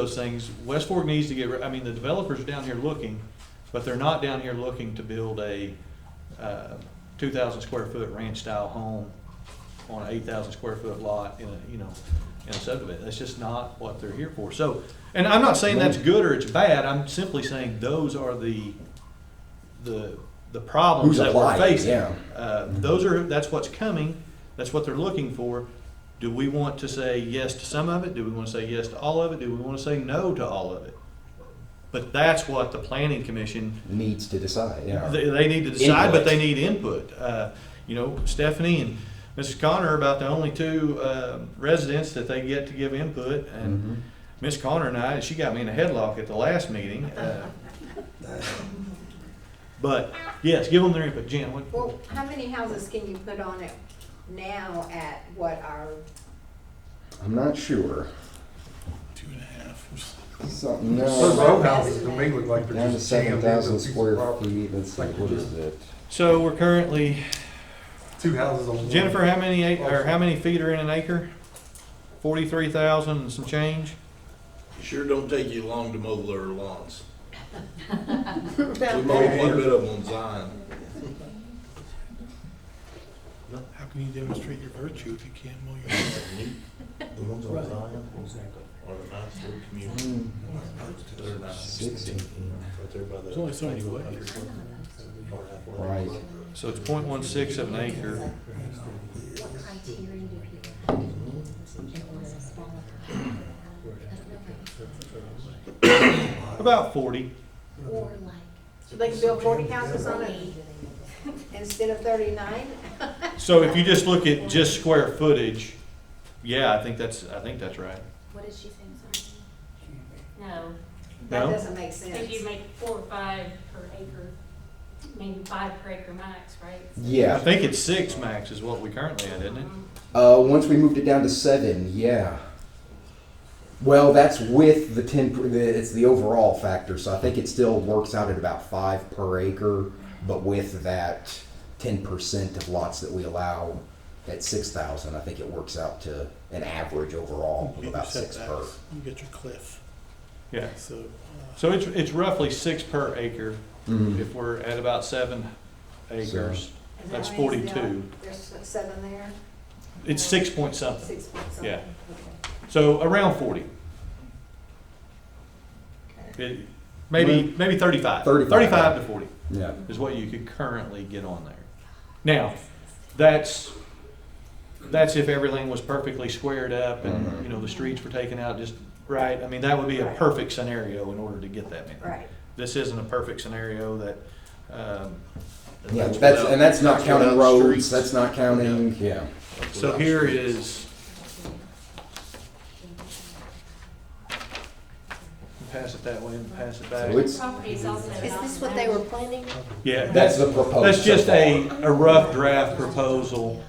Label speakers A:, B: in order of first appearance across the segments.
A: those things, West Fork needs to get, ri- I mean, the developers are down here looking, but they're not down here looking to build a, uh, two thousand square foot ranch style home on an eight thousand square foot lot in a, you know, in a subdivision. That's just not what they're here for. So, and I'm not saying that's good or it's bad, I'm simply saying those are the, the, the problems
B: Who's
A: that we're
B: applying,
A: facing.
B: yeah.
A: Uh, Those are, that's what's coming, that's what they're looking for. Do we want to say yes to some of it? Do we want to say yes to all of it? Do we want to say no to all of it? But that's what the planning commission,
B: needs to decide, yeah.
A: they, they need to decide, but
B: Input.
A: they need input. Uh, You know, Stephanie and Mrs. Connor are about the only two uh, residents that they get to give input.
B: Mhm.
A: And Miss Connor and I, she got me in a headlock at the last meeting. uh, But yes, give them their input. Jen, what?
C: Well, how many houses can you put on it now at what our,
B: I'm not sure.
D: Two and a half.
B: Something,
E: Those
B: no.
E: row houses to me look like they're
B: Down to
E: just jammed
B: seven
E: into a
B: thousand
E: piece of
B: square
E: property.
B: feet, let's see,
E: Like
B: what
E: you
B: is
E: just-
B: it?
A: So we're currently,
E: Two houses on one.
A: Jennifer, how many, ac- or how many feet are in an acre? Forty-three thousand and some change?
D: Sure don't take you long to mow their lawns. We
E: Well,
D: mowed one bit of them on Zion.
F: How can you demonstrate your virtue if you can't mow your lawn?
D: The ones on Zion? Are a nice little community.
B: Hmm,
D: They're nice.
B: Sixty.
D: Right there by the-
F: There's only so many ways.
B: Right,
A: So it's point one six of an acre.
G: criteria do people have in order to qualify? I don't know.
A: About forty.
G: Or like,
C: so they can build forty houses on it
G: age of the
C: instead of thirty-nine?
A: So if you just look at just square footage, yeah, I think that's, I think that's right.
G: What did she say, I'm sorry?
H: No,
C: That
A: No?
C: doesn't make
H: I think you
C: sense.
H: make four or five per acre, maybe five per acre max, right?
A: I
B: yeah.
A: think it's six max is what we currently had, isn't it?
H: Um,
B: Uh, once we moved it down to seven, yeah. Well, that's with the ten, per- the- it's the overall factor, so I think it still works out at about five per acre, but with that ten percent of lots that we allow at six thousand, I think it works out to an average overall of
F: You
B: about
F: set
B: six
F: that,
B: per.
F: You get your cliff,
A: Yeah.
F: so, uh,
A: So it's, it's roughly six per acre
B: Mhm.
A: if we're at about seven acres.
C: And how
A: That's
C: many is there?
A: 42.
C: There's seven there,
A: It's six point something.
C: six point something.
A: Yeah.
C: Okay.
A: So around forty. It- Maybe, maybe thirty-five.
B: 35.
A: Thirty-five to forty
B: yeah.
A: is what you could currently get on there. Now, that's, that's if everything was perfectly squared up and,
B: Mhm.
A: you know, the streets were taken out just right. I mean, that would be a perfect scenario in order to get that many.
C: Right.
A: This isn't a perfect scenario that, um.
B: Yeah, that's, and that's not counting
D: without
B: roads,
D: streets.
B: that's not counting, yeah.
A: So here is. Pass it that way and pass it back.
B: So it's,
H: Property is also
C: Is
H: not
C: this what they were planning?
F: uh,
A: Yeah.
B: that's the proposed.
A: That's just
B: so far.
A: a, a rough draft proposal.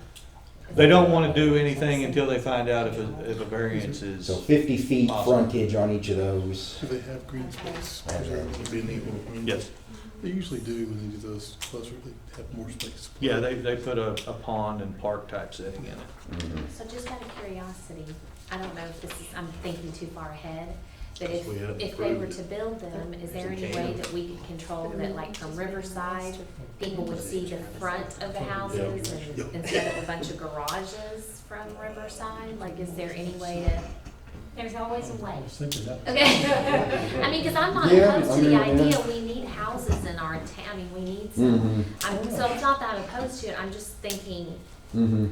A: They don't want to do anything until they find out if a, if a variance is.
B: So fifty feet
A: Awesome.
B: frontage on each of those.
F: do they have green space?
B: Okay.
F: preserved?
A: Yes,
F: They usually do when they do those closer, they have more space.
A: yeah, they, they put a, a pond and park type setting in it.
B: Mm-hmm.
G: So just out of curiosity, I don't know if this is, I'm thinking too far ahead, but if,
D: We haven't
G: if they were
D: approved
G: to build them, is there any
D: It's a
G: way
D: can.
G: that we could control that like from Riverside, people would see the front of the houses and
F: Yeah.
G: instead of a bunch of garages from Riverside? Like, is there any way to, there's always
F: Um,
G: a way. Okay. I mean, because I'm not
B: Yeah,
G: opposed
B: I
G: to the
B: mean, yeah.
G: idea, we need houses in our town, I mean, we need
B: Mhm.
G: some. I'm, so I'm not that opposed to it, I'm just thinking
B: Mm-hmm.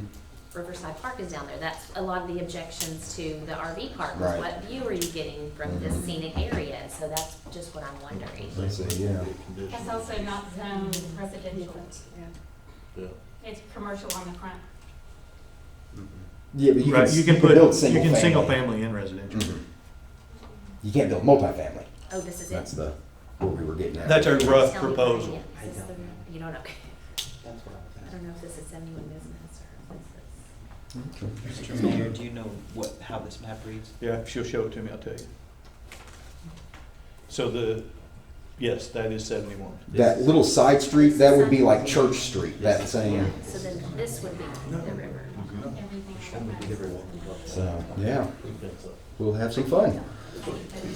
G: Riverside Park is down there, that's a lot of the objections to the RV park,
B: Right. Mm-hmm.
G: was what view are you getting from this scenic area? So that's just what I'm wondering.
B: Let's see, yeah.
H: That's also not zoned residential,
C: Yeah.
D: Yeah.
H: it's commercial on the front.
B: Yeah, but you
A: Right,
B: can,
A: you can put,
B: build
A: you
B: single
A: can
B: family.
A: single family and residential.
B: Mhm. You can't build multifamily.
G: Oh, this is
B: That's
G: it?
B: the what we were getting at.
A: That's a rough
G: Tell me about it
A: proposal.
G: again. Is this the- You don't know, I don't know if this is anyone business or if this is.
B: Mm-hmm.
I: Mr. Mayor, do you know what, how this map reads?
A: Yeah, if she'll show it to me, I'll tell you. So the, yes, that is seventy-one.
B: that little side street. That would be like Church Street. That same.
G: So then this would be the river.
B: Mm-hmm.
H: Everything.
B: So yeah, we'll have some fun.
D: but